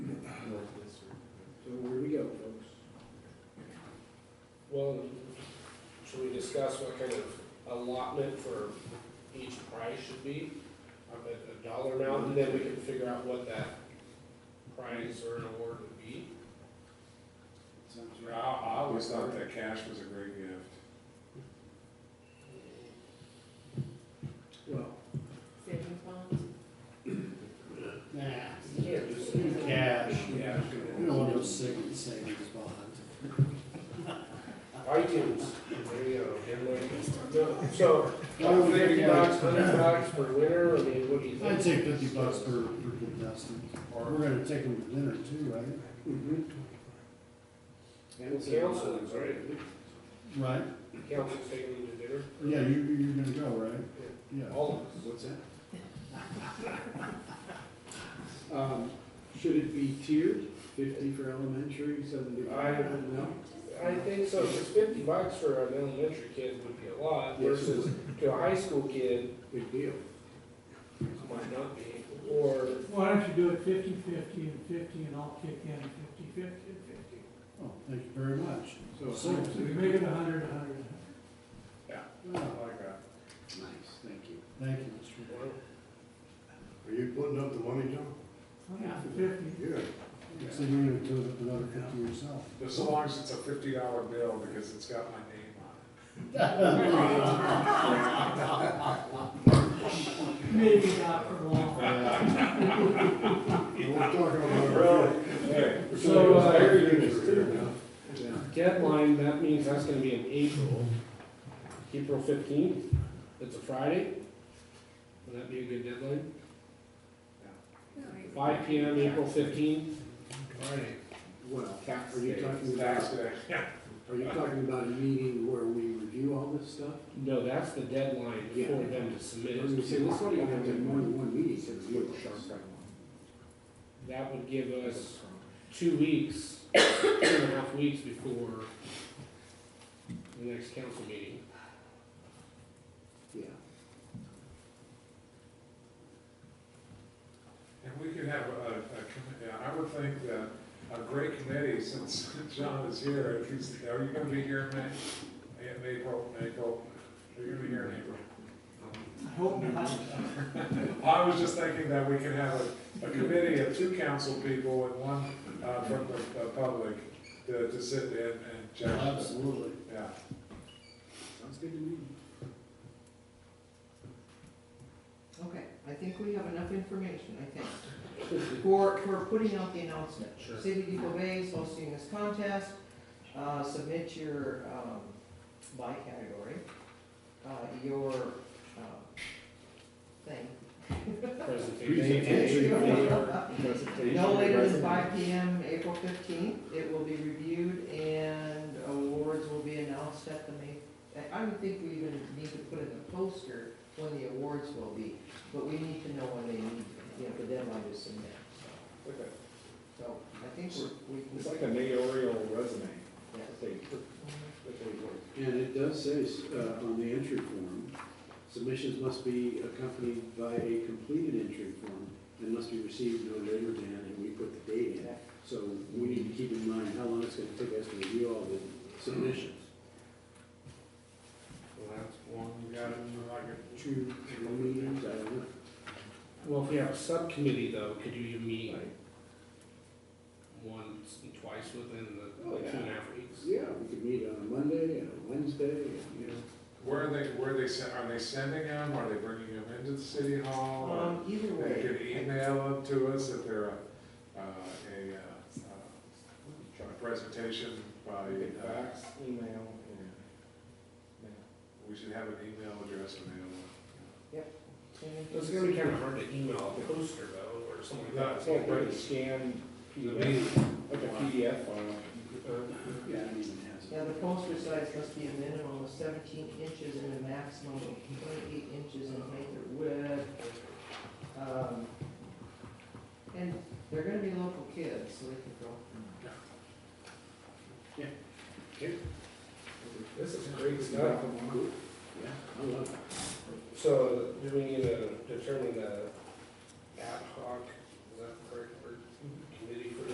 discuss what kind of allotment for each prize should be, up at a dollar amount, and then we can figure out what that prize or an award would be. Ah, I, I always thought that cash was a great gift. Well, Savings bonds? nah, do cash, Yeah. you don't want those savings, savings bonds. iTunes, there you go, everybody. No, So, I would think fifty about it. bucks, hundred bucks per winner, I mean, what do you think? I'd take fifty bucks per, per contestant, or we're gonna take them to dinner too, right? And council, right, Right, council taking them to dinner, yeah, you, you're gonna go, right? Yeah. all of us. What's that? Um, Should it be tiered, fifty for elementary, I- seventy-five, no? I think so, because fifty bucks for an elementary kid would be a lot Yes, it versus to a high school kid, Big deal. might not be, or, Why don't you do it fifty-fifty and fifty, and I'll kick in fifty-fifty and fifty? Oh, thank you very much. So a So- So we make it a hundred, a hundred. Wow, like that. Nice, thank you. Thank you, Mr. well, Are you putting up the money, John? Hundred and fifty. Yeah. Lewis. So you're gonna do another fifty yourself. Just so long as it's a fifty dollar bill, because it's got my name on it. Maybe not for long. We're talking about. Hey. we're So, talking about uh, air units here now. Yeah. deadline, that means that's gonna be in April. April fifteenth, it's a Friday. Would that be a good deadline? Five P M, April fifteenth. Friday. Well, Tax are you day. talking Tax about, day. are you talking about a meeting where we review all this stuff? No, that's the deadline Yeah. for them to submit. I was gonna say, this one, you have to have more it. than one meeting to review all this stuff. That would give us two weeks, two and a half weeks before the next council meeting. Yeah. And we could have a, a, commi- yeah, I would think that a great committee, since John is here, if he's, are you gonna be here in May? In April, April, are you gonna be here in April? I hope not. I was just thinking that we could have a, a committee of two council people and one, uh, from the, uh public to, to sit in and judge. Absolutely. Yeah, Sounds good to me. Okay, I think we have enough information, I think, for, for putting out the announcement. Sure. City of Eagle Bay is hosting this contest, uh, submit your, um, by category, uh, your, um, thing. Presentation. No later than five P M, April fifteenth, it will be reviewed and awards will be announced at the May. I I don't think we even need to put in a poster when the awards will be, but we need to know when they need, you know, the deadline to submit, so. So I think we're, we can. like a mayoral resume. yeah. And it does say uh, on the entry form, submissions must be accompanied by a completed entry form and must be received no later than, and we put the date in. So we need to keep in mind how long it's gonna take us to review all the submissions. well, that's one, we got it, like a Two, three meetings, I don't know. Well, if we have a subcommittee though, could you meet once and twice within Oh, the two and a half weeks? Yeah, we could meet on a Monday, and a Wednesday, and, you know. Where are they, where are they, sen- are they sending them, are they bringing them into the city hall? Um, either Or They could way, email them to us if they're a, uh, a, uh, uh, a presentation by, uh, email, we should have an email address available. It's gonna be kinda hard to email a poster though, or something like that. Yeah, but it's scan, like a PDF file. Yeah, I mean, it yeah, the poster size must be a minimum of seventeen inches and a maximum of twenty-eight inches in height or width. Um, And they're gonna be local kids, so they can go. This is great has. stuff. Yeah, I love it. So do we need to determine the ad hoc